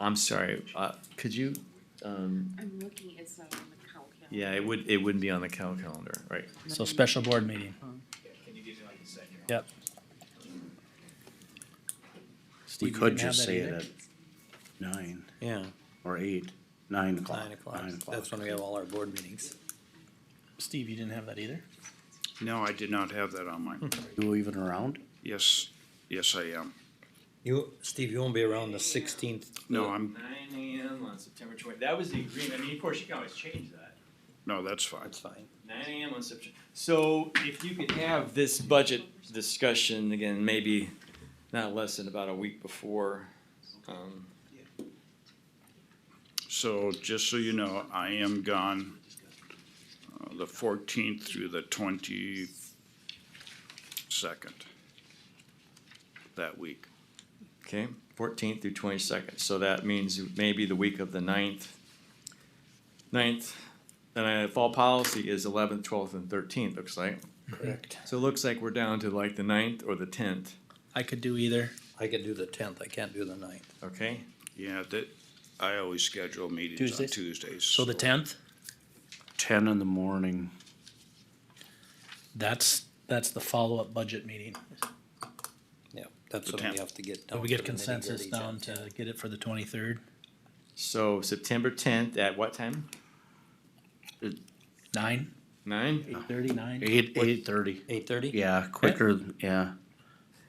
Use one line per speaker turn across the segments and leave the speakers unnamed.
I'm sorry, uh, could you, um,
I'm looking, it's not on the count calendar.
yeah, it would, it wouldn't be on the cal calendar, right?
So special board meeting. Yep.
We
Steve, you
could
didn't have
just
that
say it
either?
at nine
Yeah,
or eight, nine o'clock.
nine o'clock. That's when we have all our board meetings. Steve, you didn't have that either?
No, I did not have that on
Hmm.
mine.
You even around?
Yes, yes, I am.
You, Steve, you won't be around the sixteenth.
No, I'm,
Nine AM on September twenty, that was the agreement, I mean, of course, you can always change that,
no, that's fine.
That's fine.
nine AM on September. So if you could have this budget discussion again, maybe not less than about a week before, um,
So just so you know, I am gone uh, the fourteenth through the twenty-second that week.
okay, fourteenth through twenty-second, so that means maybe the week of the ninth. Ninth, and I, fall policy is eleventh, twelfth, and thirteenth, looks like.
Correct.
So it looks like we're down to like the ninth or the tenth,
I could do either. I could do the tenth, I can't do the ninth.
okay?
Yeah, that, I always schedule meetings on
Tuesdays?
Tuesdays.
So the tenth,
Ten in the morning.
that's, that's the follow-up budget meeting.
Yeah, that's
The
when we
10th.
have to get.
But
down
we
to
get
the
consensus
nitty-gritty
down
detail.
to get it for the twenty-third,
So September tenth at what time?
nine,
Nine?
eight-thirty, nine?
Eight, eight thirty.
Eight thirty?
Yeah, quicker, yeah.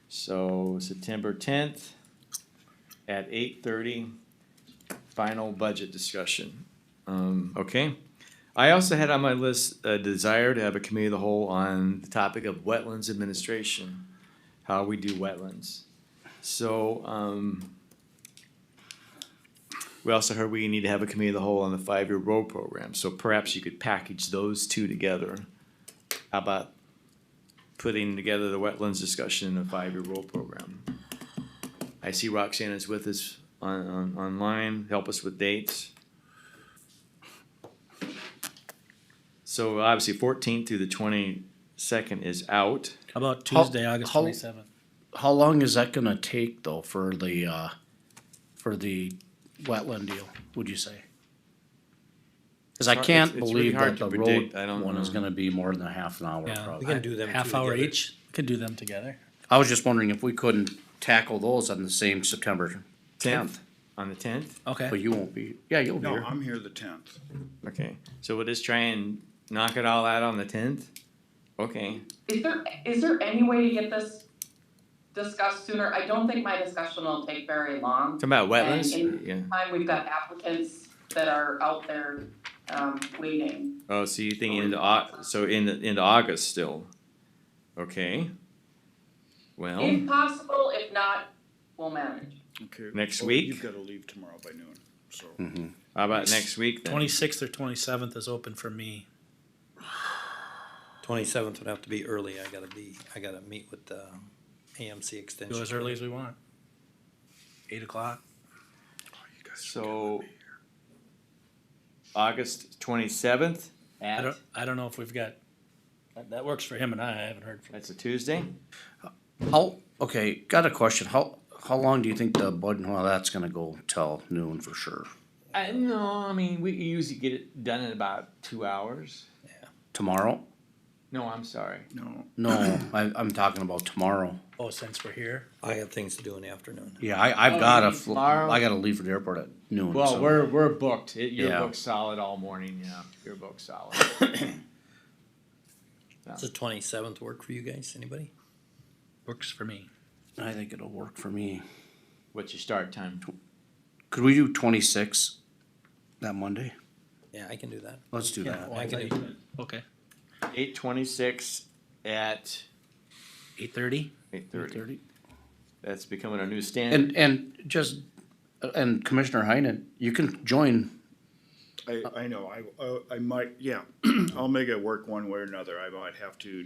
So September tenth at eight thirty, final budget discussion. Um, okay. I also had on my list a desire to have a committee of the whole on the topic of wetlands administration, how we do wetlands. So, um, we also heard we need to have a committee of the whole on the five-year road program, so perhaps you could package those two together. How about putting together the wetlands discussion in a five-year roll program. I see Roxanne is with us on, on, online, help us with dates. So obviously fourteenth through the twenty-second is out.
How about
How-
Tuesday, August
how-
twenty-seventh?
How long is that gonna take though for the, uh, for the wetland deal, would you say? Cause I
It's hard-
can't
it's- it's really
believe
hard
that
to
the road
predict. I don't
one is
know.
gonna be more than a half an hour
Yeah,
probably.
we
can
can do
do
them
them
half
two
hour
together.
each, could do them together.
I was just wondering if we couldn't tackle those on the same September tenth,
On the tenth,
Okay.
but you won't be, yeah, you'll be
No,
here.
I'm here the tenth.
okay, so we'll just try and knock it all out on the tenth? Okay,
Is there, is there any way to get this discussed sooner? I don't think my discussion will take very long.
talking about wetlands,
And-
yeah,
Time, we've got applicants that are out there, um, waiting.
oh, so you think into Au- so in, into August still? Okay. Well.
If possible, if not, we'll manage.
Okay.
Next
Oh,
week? Hmm.
You've gotta leave tomorrow by noon, so.
How about next week then?
Twenty-sixth or twenty-seventh is open for me.
Twenty-seventh would have to be early, I gotta be, I gotta meet with uh, the AMC extension.
Go as early as we want. Eight o'clock.
So. August twenty-seventh,
I don't, I don't know if we've got, that, that works for him and I, I haven't heard from.
that's a Tuesday,
How, okay, got a question. How, how long do you think the bud, well, that's gonna go till noon for sure,
I, no, I mean, we usually get it done in about two hours.
tomorrow?
No, I'm sorry,
No,
No, I, I'm talking about tomorrow.
Oh, since we're here,
I got things to do in the afternoon.
Yeah, I, I've
Oh,
got
you
a,
mean
fl-
tomorrow?
I gotta leave for the airport at noon.
well,
so-
we're, we're booked, It- you're
Yeah.
booked solid all morning, yeah, you're booked solid.
Does the twenty-seventh work for you guys, anybody?
works for me.
I think it'll work for me.
What's your start time?
Could we do twenty-six that Monday?
Yeah, I can do that.
Let's do
Yeah,
that.
well, Uh, I can
can
do it. Okay.
Eight twenty-six at
Eight thirty?
eight thirty,
30.
that's becoming our new standard.
And, and just, and Commissioner Heinen, you can join,
I, I know, I- uh, I, I might, yeah, I'll make it work one way or another, I might have to.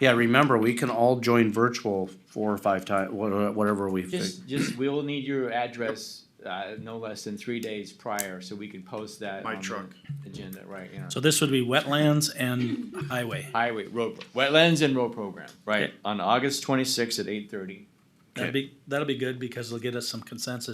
yeah, remember, we can all join virtual four or five times, whatever we've.
Just, just, we will need your address, uh, no less than three days prior, so we can post that.
My
on the
truck.
Agenda, right, yeah.
So this would be wetlands and highway.
Highway, road, wetlands and road program, right, on August twenty-sixth at eight thirty.
That'd be, that'll be good because it'll get us some consensus